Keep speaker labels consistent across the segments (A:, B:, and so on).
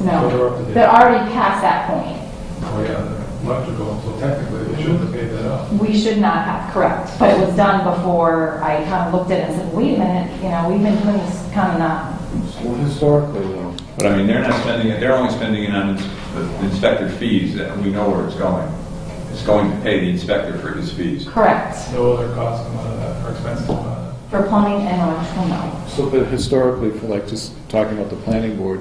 A: No,
B: They're up to date.
A: they're already past that point.
B: Oh, yeah, they're electrical, so technically they shouldn't have paid that out.
A: We should not have, correct, but it was done before I kind of looked at it and said, wait a minute, you know, we've been doing this kind of not,
C: Well, historically, though,
D: But I mean, they're not spending it, they're only spending it on ins- the inspector fees, and we know where it's going. It's going to pay the inspector for his fees.
A: correct,
B: No other costs come out of that, or expenses come out of
A: for plumbing and electrical, no.
C: so that historically, for like, just talking about the planning board,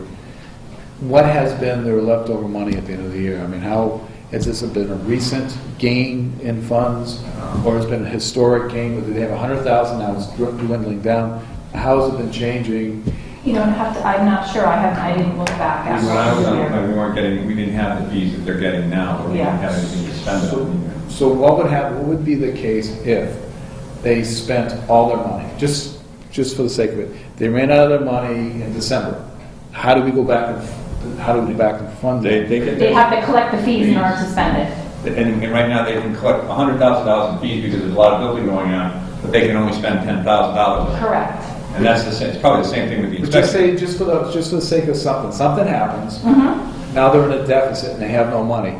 C: what has been their leftover money at the end of the year? I mean, how, has this been a recent gain in funds, or has been a historic gain, whether they have a hundred thousand, now it's dr- dwindling down? How's it been changing?
A: You don't have to, I'm not sure, I haven't, I didn't look back
D: When
A: at
D: I was on the
A: it.
D: plan, we weren't getting, we didn't have the fees that they're getting now, or we didn't have anything to spend it on.
C: So what would have, what would be the case if they spent all their money, just, just for the sake of it? They ran out of their money in December. How do we go back and, how do we go back and fund
D: They,
C: it?
D: they get.
A: They
D: that-
A: have to collect the fees in order to spend it.
D: And, and right now, they can collect hundred thousand dollars in fees because there's a lot of building going on, but they can only spend ten thousand dollars.
A: Correct.
D: And that's the same, it's probably the same thing with the
C: But Just say,
D: inspector.
C: just for the, just for the sake of something, something happens, now they're in a deficit and they have no money,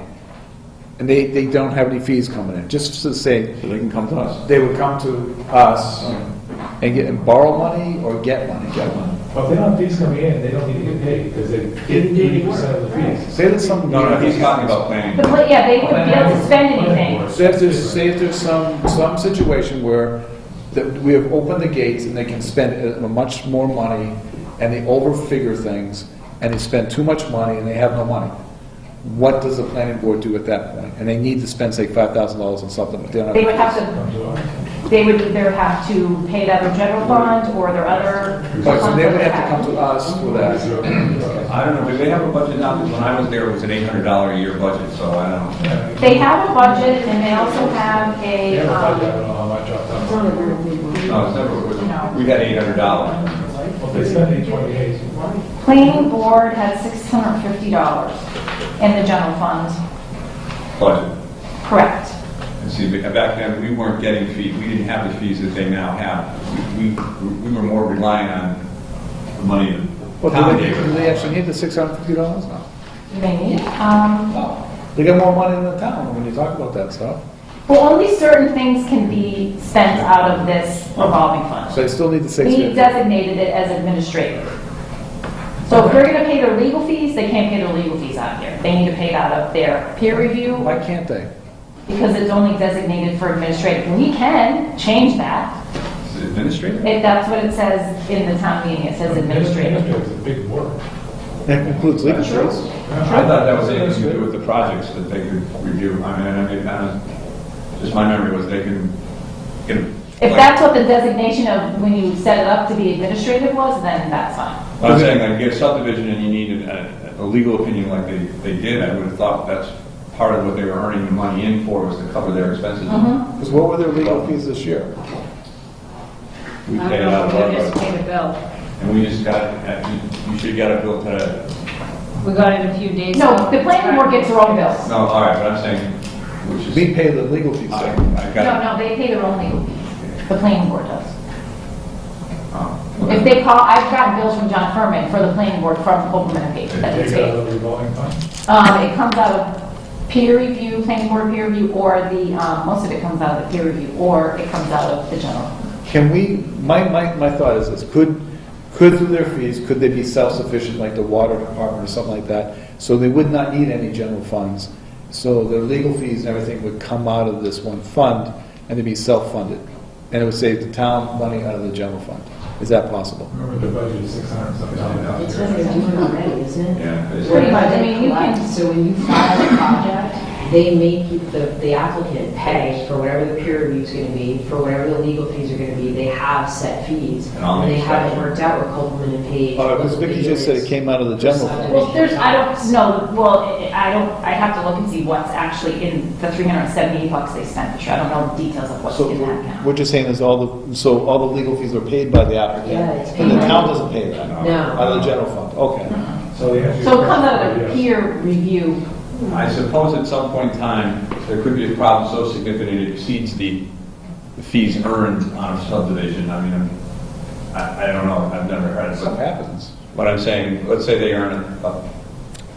C: and they, they don't have any fees coming in, just to say,
D: So they can come to us.
C: they would come to us and get, and borrow money or get money? Get money.
B: that. But if they don't have fees coming in, they don't need to get paid, because they get eighty percent of the fees.
C: Say that something.
D: No, no, he's talking about planning.
A: But, but, yeah, they wouldn't be able to spend anything.
C: Say if there's, say if there's some, some situation where that we have opened the gates and they can spend uh, much more money and they overfigure things and they spend too much money and they have no money. What does the planning board do at that point? And they need to spend, say, five thousand dollars on something, but they don't
A: They would
C: have.
A: have to,
B: Come to us.
A: they would either have to pay it out of general fund or their other.
C: But so
A: funds
C: they
A: that
C: would
A: they
C: have to come to us for that.
D: I don't know, do they have a budget now? Because when I was there, it was an eight hundred dollar a year budget, so I don't know.
A: They have a budget and they also have a,
B: Yeah, I
A: um,
B: don't know how much I've done.
D: No, it's never, it was- we had eight hundred dollars.
B: Well, they spend eight twenty-eight.
A: Planning board had six hundred and fifty dollars in the general fund,
D: budget.
A: correct.
D: And see, but back then, we weren't getting fees, we didn't have the fees that they now have. We, we- we were more relying on the money that
C: Well,
D: Tom
C: do they,
D: gave
C: do they actually
D: us.
C: need the six hundred and fifty dollars now?
A: They need, um,
C: They got more money than the town when you talk about that stuff.
A: well, only certain things can be spent out of this revolving fund.
C: So they still need the six
A: We
C: fifty.
A: designated it as administrative. So if they're gonna pay their legal fees, they can't pay their legal fees out of here. They need to pay it out of their peer review
C: Why can't they?
A: because it's only designated for administrative. We can change that.
D: Administrator?
A: If that's what it says in the town meeting, it says administrative.
B: Administrative is a big word.
C: That includes legal fees.
D: I thought that was anything to do with the projects that they could review. I mean, I mean, I don't- just my memory was they can get.
A: If that's what the designation of when you set it up to be administrative was, then that's fine.
D: But I'm saying, like, you get a subdivision and you need a, a legal opinion like they, they did, I would have thought that's part of what they were earning the money in for was to cover their expenses.
C: Because what were their legal fees this year?
D: We
E: I
D: paid
E: don't
D: out of
E: know,
D: our
E: we just
D: budget.
E: paid a bill.
D: And we just got, uh, you- you should have got a bill today.
E: We got it a few days ago.
A: No, the planning board gets their own bills.
D: No, all right, but I'm saying, which is,
C: We pay the legal fees.
D: I,
C: sir.
D: I
A: No,
D: got.
A: no, they pay their own legal fees. The planning board does.
D: oh, okay.
A: If they call, I've gotten bills from John Furman for the planning board from Coleman and Page. that
B: They
A: we
B: take it out
A: pay.
B: of the uh, revolving fund.
A: Um, it comes out of peer review, planning board peer review, or the, um, most of it comes out of the peer review, or it comes out of the general.
C: Can we, my, my, my thought is this, could, could through their fees, could they be self-sufficient, like the water department or something like that? So they would not need any general funds, so their legal fees and everything would come out of this one fund, and they'd be self-funded. And it would save the town money out of the general fund. Is that possible?
B: Remember, the budget is six hundred something dollars.
E: It's what they're doing already, isn't it?
D: Yeah, it's-
A: Pretty much, I mean, you can-
E: So when you file a project, they make you, the the applicant pay for whatever the peer review's gonna be, for whatever the legal fees are gonna be, they have set fees.
D: And all the
E: they have it
D: exceptions.
E: worked out with Copeland and Page.
C: Uh, because Vicky just said it came out of the general fund.
A: Well, there's, I don't know, well, I I don't, I have to look and see what's actually in the three hundred and seventy bucks they spent this year. I don't know the details of what's
C: So
A: in that
C: we're,
A: account.
C: we're just saying is all the, so all the legal fees are paid by the
E: Yeah, it's
C: applicant,
E: paid
C: and the
E: by-
C: town doesn't pay that,
E: No.
C: out of the general fund, okay.
B: So the answer to
A: So
B: your
A: it comes out of
B: question
A: the
B: is yes.
A: peer review.
D: I suppose at some point in time, there could be a problem so significant it exceeds the fees earned on a subdivision. I mean, I'm- I, I don't know, I've never heard of
C: Stuff
D: it.
C: happens.
D: But I'm saying, let's say they earn a